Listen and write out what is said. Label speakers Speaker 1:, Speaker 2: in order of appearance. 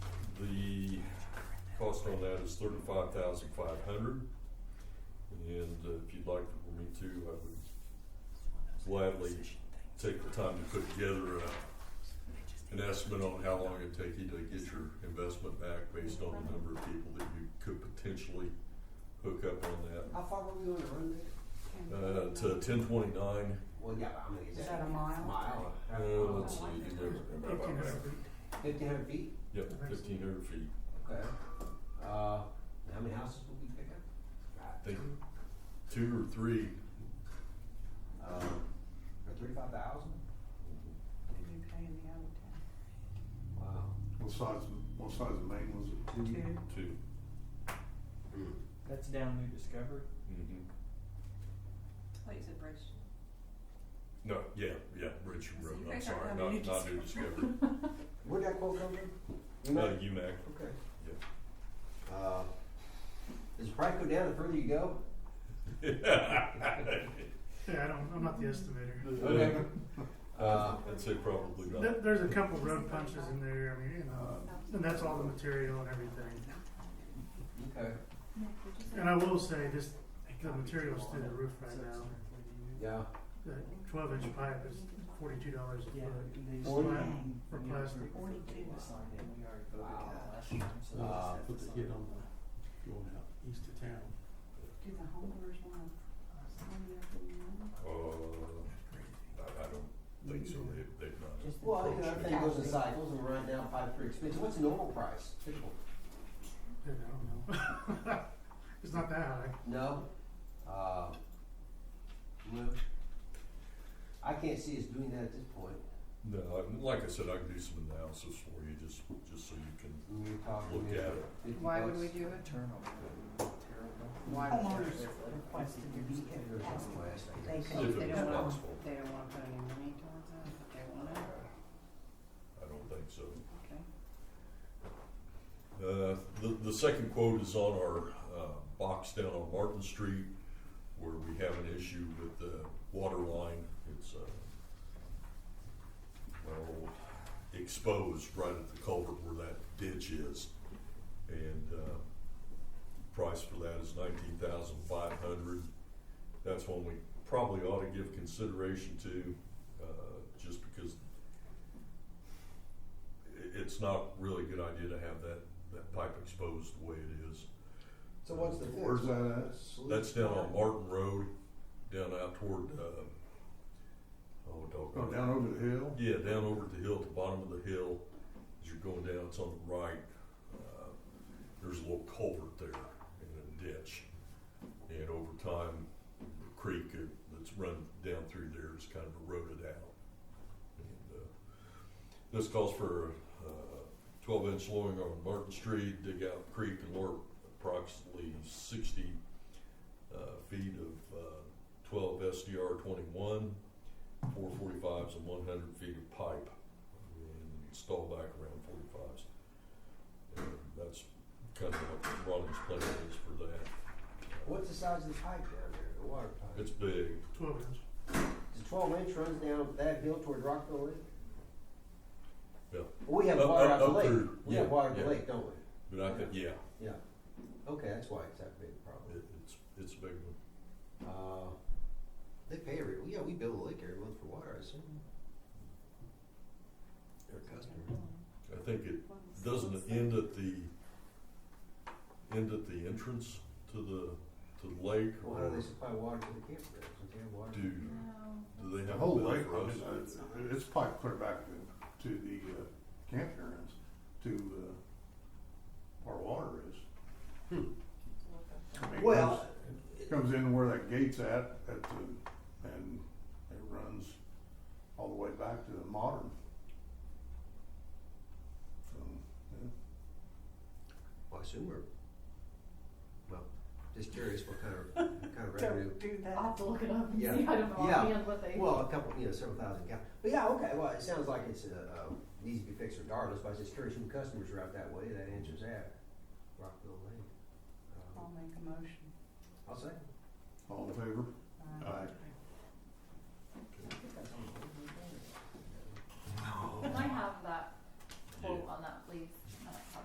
Speaker 1: cost on that is thirty-five thousand five hundred. And uh, if you'd like for me to, I would gladly take the time to put together a, an estimate on how long it'd take you to get your investment back based on the number of people that you could potentially hook up on that.
Speaker 2: How far were we going to run it?
Speaker 1: Uh, to ten twenty-nine,
Speaker 2: Well, yeah, but I mean, is
Speaker 3: Is
Speaker 2: that,
Speaker 3: that a mile?
Speaker 2: mile?
Speaker 1: uh, let's see, you
Speaker 2: Fifteen hundred feet?
Speaker 1: yep, fifteen hundred feet.
Speaker 2: Okay. Uh, how many houses would we pick
Speaker 1: I
Speaker 2: up?
Speaker 1: think two or three,
Speaker 2: Um, for thirty-five thousand?
Speaker 3: Did you pay in the other
Speaker 2: Wow.
Speaker 4: What size, what size of main was it?
Speaker 3: ten? Two.
Speaker 1: two.
Speaker 5: That's down New Discovery.
Speaker 1: Mm-hmm.
Speaker 6: Wait, is it Bridge?
Speaker 1: No, yeah, yeah, Richard
Speaker 6: I
Speaker 1: Road,
Speaker 6: see.
Speaker 1: I'm
Speaker 6: Bridge
Speaker 1: sorry,
Speaker 6: Road,
Speaker 1: not,
Speaker 6: New
Speaker 1: not New Discovery,
Speaker 2: Where'd that quote come from? You
Speaker 1: uh,
Speaker 2: know?
Speaker 1: UMAC,
Speaker 2: Okay.
Speaker 1: yeah.
Speaker 2: Uh, does the price go down the further you go?
Speaker 7: Yeah, I don't, I'm not the estimator.
Speaker 2: Okay. Uh,
Speaker 1: I'd say probably
Speaker 7: There-
Speaker 1: not.
Speaker 7: There's a couple road punches in there, I mean, you
Speaker 4: Uh,
Speaker 7: know, and that's all the material and everything.
Speaker 2: okay.
Speaker 7: And I will say, this, the material's through the roof right now.
Speaker 2: Yeah.
Speaker 7: The twelve inch pipe is forty-two dollars a
Speaker 5: Yeah,
Speaker 7: foot.
Speaker 5: they
Speaker 2: Forty.
Speaker 5: slide
Speaker 7: For
Speaker 5: from your
Speaker 7: plastic.
Speaker 5: roof
Speaker 3: Forty-two.
Speaker 5: to the sign in. We already voted
Speaker 2: Wow.
Speaker 5: that last time, so they
Speaker 2: Uh,
Speaker 5: just have
Speaker 4: Put
Speaker 5: to
Speaker 4: the
Speaker 5: sign
Speaker 4: hit
Speaker 5: it.
Speaker 4: on the, going out east of town.
Speaker 3: Do the homeowners want to sign up in the other?
Speaker 1: Uh, I, I don't think so, they, they've not.
Speaker 3: Just the
Speaker 2: Well, you know,
Speaker 3: bridge.
Speaker 2: everything goes in cycles and right now pipe's pretty expensive. What's the normal price?
Speaker 7: Yeah, I don't know. It's not that high.
Speaker 2: No. Uh, no. I can't see us doing that at this point.
Speaker 1: No, I- like I said, I can do some analysis for you, just, just so you can,
Speaker 2: We We're talking
Speaker 1: Look at
Speaker 2: maybe
Speaker 1: it.
Speaker 2: fifty
Speaker 3: Why would
Speaker 2: bucks.
Speaker 3: we do it?
Speaker 5: Turnover. Terrible.
Speaker 3: Why would
Speaker 5: Homeowners
Speaker 3: they request to be
Speaker 2: Or something like
Speaker 3: asked?
Speaker 2: that.
Speaker 3: They
Speaker 1: If
Speaker 3: can, they
Speaker 1: it was
Speaker 3: don't want,
Speaker 1: possible.
Speaker 3: they don't want to put any money towards that, but they want it,
Speaker 1: I don't think so.
Speaker 3: okay?
Speaker 1: Uh, the, the second quote is on our, uh, box down on Martin Street where we have an issue with the water line. It's, uh, well, exposed right at the culvert where that ditch is. And, uh, price for that is nineteen thousand five hundred. That's one we probably ought to give consideration to, uh, just because i- it's not really a good idea to have that, that pipe exposed the way it is. Uh,
Speaker 2: So what's the fix?
Speaker 4: Where's that
Speaker 1: That's down on Martin Road, down out toward, uh, oh,
Speaker 4: at?
Speaker 1: dog.
Speaker 4: Go down over the hill?
Speaker 1: Yeah, down over the hill, at the bottom of the hill, as you're going down, it's on the right. uh, There's a little culvert there and a ditch. And over time, the creek that- that's run down through there is kind of eroded out. And, uh, This calls for uh, twelve inch flooring on Martin Street, dig out the creek and lower approximately sixty uh, feet of uh, twelve SDR twenty-one four forty-fives and one hundred feet of pipe and install back around forty-fives. And that's kind of what Ronnie's plan is for that.
Speaker 2: What's the size of the pipe down there, the water pipe?
Speaker 1: It's big,
Speaker 7: Twelve inch.
Speaker 2: The twelve inch runs down that hill toward Rockville Lake?
Speaker 1: Yeah.
Speaker 2: We have
Speaker 1: Up-
Speaker 2: water
Speaker 1: up-
Speaker 2: out the
Speaker 1: up
Speaker 2: lake,
Speaker 1: through-
Speaker 2: we
Speaker 1: yeah,
Speaker 2: have water out
Speaker 1: yeah.
Speaker 2: the lake, don't we?
Speaker 1: but I think, yeah,
Speaker 2: Yeah. Okay, that's why it's that big a problem.
Speaker 1: it, it's, it's a big one.
Speaker 2: Uh, they pay every, yeah, we bill the lake every month for water, I assume. They're a customer.
Speaker 1: I think it, doesn't it end at the, end at the entrance to the, to the lake?
Speaker 2: Well, how
Speaker 1: Or
Speaker 2: do they supply water to the campgrounds? Don't they have water?
Speaker 1: do, do they
Speaker 4: The
Speaker 1: have a
Speaker 4: whole
Speaker 1: bill
Speaker 4: lake,
Speaker 1: for
Speaker 4: I
Speaker 1: us?
Speaker 4: mean, uh, it's pipe clear back to, to the uh, campgrounds, to, uh, our water is. I mean, it
Speaker 2: Well,
Speaker 4: comes- Comes in where that gate's at, at the, and it runs all the way back to the modern. So, yeah.
Speaker 2: Well, I assume we're, well, just curious what kind of, what kind of revenue.
Speaker 3: Don't do that.
Speaker 6: I'll have to look it up and see,
Speaker 2: Yeah.
Speaker 6: I don't know
Speaker 2: Yeah.
Speaker 6: offhand what they.
Speaker 2: Well, a couple, you know, several thousand gallons. But yeah, okay, well, it sounds like it's, uh, uh, needs to be fixed regardless, but I was just curious who customers are out that way, that answers that. Rockville Lane. Um,
Speaker 3: I'll make a motion.
Speaker 2: I'll say.
Speaker 4: All in favor?
Speaker 3: Uh,
Speaker 4: Aye.
Speaker 3: okay.
Speaker 6: Uh,